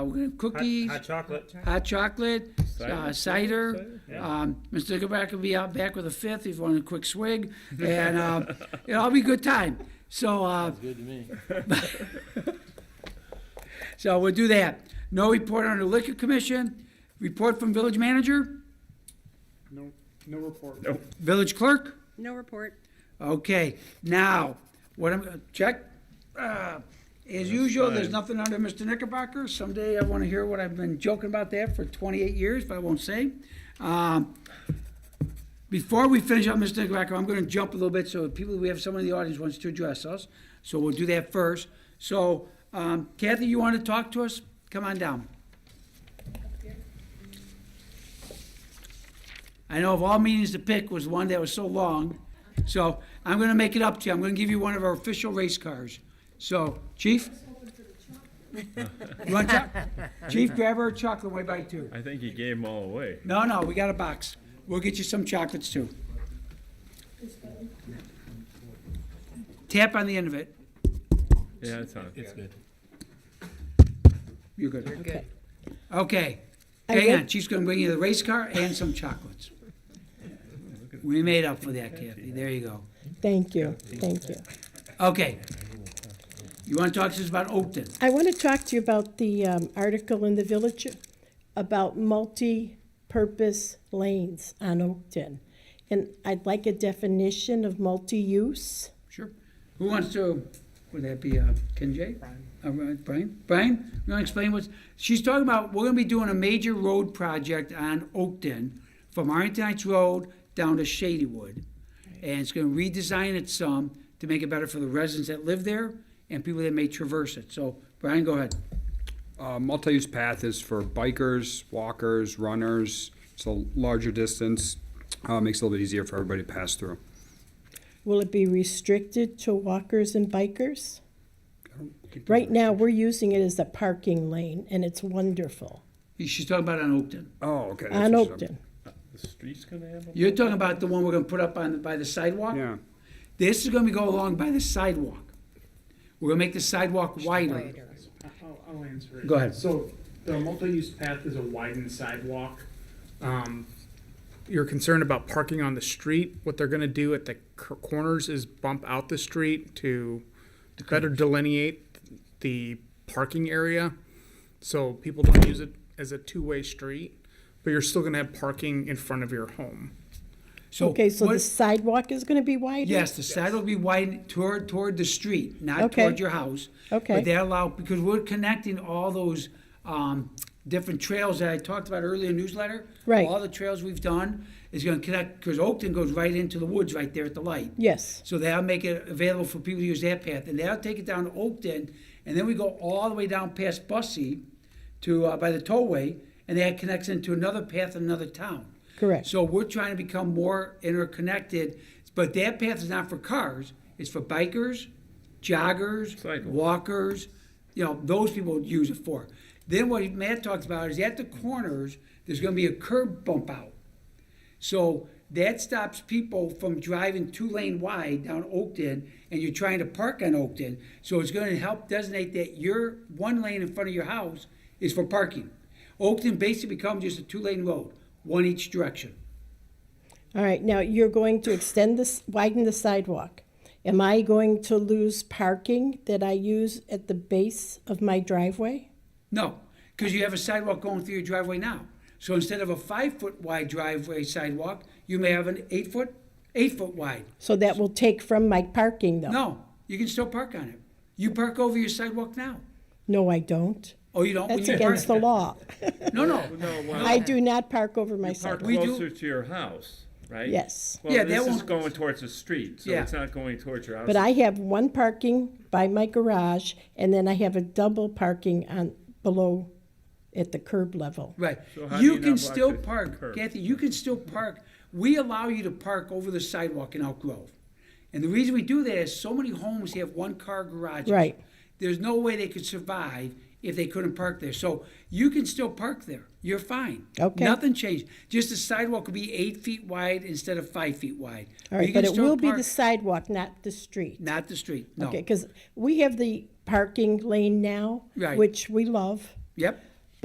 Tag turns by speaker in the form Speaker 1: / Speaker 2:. Speaker 1: Uh, We're gonna cookies,
Speaker 2: Hot chocolate.
Speaker 1: hot chocolate, uh, cider. Um, Mr. Nickelback will be out back with a fifth if you want a quick swig, and, um, it'll all be a good time. So, uh,
Speaker 3: Good to me.
Speaker 1: so we'll do that. No report on the liquor commission, report from village manager,
Speaker 4: No, no report.
Speaker 2: Nope.
Speaker 1: village clerk.
Speaker 5: No report.
Speaker 1: Okay, now, what I'm, check, uh, as usual, there's
Speaker 2: fine.
Speaker 1: nothing under Mr. Knickerbocker. Someday I wanna hear what I've been joking about that for twenty-eight years, but I won't say. Um, Before we finish up Mr. Knickerbocker, I'm gonna jump a little bit, so people, we have someone in the audience wants to address us, so we'll do that first. So, um, Kathy, you wanna talk to us? Come on down. I know of all meetings to pick was one that was so long, so I'm gonna make it up to you. I'm gonna give you one of our official race cars. So, Chief? You want choc- Chief, grab her a chocolate way by two.
Speaker 2: I think he gave them all away.
Speaker 1: No, no, we got a box. We'll get you some chocolates too. Tap on the end of it.
Speaker 2: Yeah, that's not.
Speaker 3: It's good.
Speaker 1: You're good.
Speaker 5: Good.
Speaker 1: Okay.
Speaker 6: I
Speaker 1: Hang
Speaker 6: read-
Speaker 1: on, she's gonna bring you the race car and some chocolates. We made up for that, Kathy. There you go.
Speaker 6: Thank you, thank you.
Speaker 1: Okay. You wanna talk to us about Oakton?
Speaker 6: I want to talk to you about the um, article in the Village about multi-purpose lanes on Oakton. And I'd like a definition of multi-use.
Speaker 1: Sure. Who wants to, would that be uh, Ken Jay? Uh, Brian? Brian, you want to explain what's, she's talking about, we're going to be doing a major road project on Oakton from Arlington Heights Road down to Shadywood. And it's going to redesign it some to make it better for the residents that live there and people that may traverse it. So Brian, go ahead.
Speaker 7: Uh, multi-use path is for bikers, walkers, runners. It's a larger distance, uh, makes it a little bit easier for everybody to pass through.
Speaker 6: Will it be restricted to walkers and bikers? Right now, we're using it as a parking lane, and it's wonderful
Speaker 1: She's talking about on Oakton.
Speaker 7: Oh, okay. that's
Speaker 6: on
Speaker 7: what she
Speaker 6: Oakton.
Speaker 7: said.
Speaker 2: The street's gonna have them?
Speaker 1: You're talking about the one we're going to put up on, by the sidewalk?
Speaker 7: Yeah,
Speaker 1: This is gonna be go along by the sidewalk. We're gonna make the sidewalk wider.
Speaker 4: I'll, I'll answer it.
Speaker 1: Go ahead.
Speaker 4: So the multi-use path is a widened sidewalk. Um, You're concerned about parking on the street. What they're gonna do at the cor- corners is bump out the street to better delineate the parking area. So people don't use it as a two-way street, but you're still gonna have parking in front of your home.
Speaker 6: Okay, so
Speaker 1: what-
Speaker 6: the sidewalk is going to be wider?
Speaker 1: Yes, the sidewalk will be widened toward, toward the street, not
Speaker 6: Okay.
Speaker 1: toward your house.
Speaker 6: Okay.
Speaker 1: But that allow, because we're connecting all those, um, different trails that I talked about earlier in the newsletter.
Speaker 6: Right.
Speaker 1: All the trails we've done is gonna connect, because Oakton goes right into the woods right there at the light.
Speaker 6: Yes,
Speaker 1: So that'll make it available for people to use that path, and that'll take it down to Oakton, and then we go all the way down past Bussey to, uh, by the tollway, and that connects into another path in another town.
Speaker 6: Correct.
Speaker 1: So we're trying to become more interconnected, but that path is not for cars, it's for bikers, joggers,
Speaker 2: Cyclists.
Speaker 1: walkers, you know, those people would use it for. Then what Matt talked about is at the corners, there's gonna be a curb bump out. So that stops people from driving two lane wide down Oakton and you're trying to park on Oakton. So it's gonna help designate that your one lane in front of your house is for parking. Oakton basically becomes just a two lane road, one each direction.
Speaker 6: all right, now you're going to extend this, widen the sidewalk. Am I going to lose parking that I use at the base of my driveway?
Speaker 1: No, because you have a sidewalk going through your driveway now. So instead of a five foot wide driveway sidewalk, you may have an eight foot, eight foot wide.
Speaker 6: So that will take from my parking, though?
Speaker 1: No, you can still park on it. You park over your sidewalk now.
Speaker 6: No, I don't.
Speaker 1: Oh, you don't? when
Speaker 6: That's
Speaker 1: you
Speaker 6: against the
Speaker 1: park-
Speaker 6: law.
Speaker 1: No, no.
Speaker 2: No, well,
Speaker 6: I do not park over my
Speaker 2: you park
Speaker 6: sidewalk.
Speaker 1: We do-
Speaker 2: closer to your house, right?
Speaker 6: Yes.
Speaker 1: Yeah,
Speaker 2: Well,
Speaker 1: that
Speaker 2: this is
Speaker 1: won't-
Speaker 2: going towards the street, so
Speaker 1: Yeah.
Speaker 2: it's not going towards your house.
Speaker 6: But I have one parking by my garage, and then I have a double parking on, below, at the curb level.
Speaker 1: Right.
Speaker 2: So how do
Speaker 1: You
Speaker 2: you
Speaker 1: can
Speaker 2: not block
Speaker 1: still
Speaker 2: the
Speaker 1: park,
Speaker 2: curb?
Speaker 1: Kathy, you can still park. We allow you to park over the sidewalk in Elk Grove. And the reason we do that is so many homes have one-car garages.
Speaker 6: Right.
Speaker 1: There's no way they could survive if they couldn't park there. So you can still park there. You're fine.
Speaker 6: Okay.
Speaker 1: Nothing changed. Just the sidewalk will be eight feet wide instead of five feet wide. you
Speaker 6: All right,
Speaker 1: can
Speaker 6: but it
Speaker 1: still
Speaker 6: will be the
Speaker 1: park-
Speaker 6: sidewalk, not the street.
Speaker 1: Not the street, no.
Speaker 6: Okay, because we have the parking lane now,
Speaker 1: Right.
Speaker 6: which we love.
Speaker 1: Yep,